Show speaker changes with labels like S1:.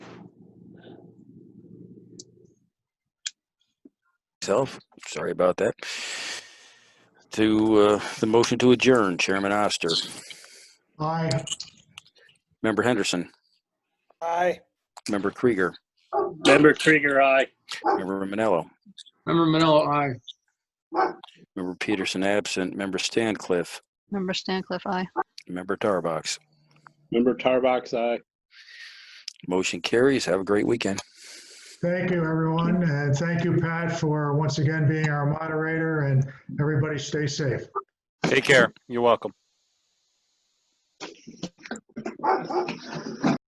S1: myself. Sorry about that. To uh, the motion to adjourn, Chairman Oster.
S2: Aye.
S1: Member Henderson.
S3: Aye.
S1: Member Krieger.
S3: Member Krieger, aye.
S1: Member Manello.
S2: Member Manella, aye.
S1: Member Peterson absent. Member Stancliffe.
S4: Member Stancliffe, aye.
S1: Member Tarbox.
S3: Member Tarbox, aye.
S1: Motion carries. Have a great weekend.
S2: Thank you, everyone, and thank you, Pat, for once again being our moderator, and everybody stay safe.
S5: Take care. You're welcome.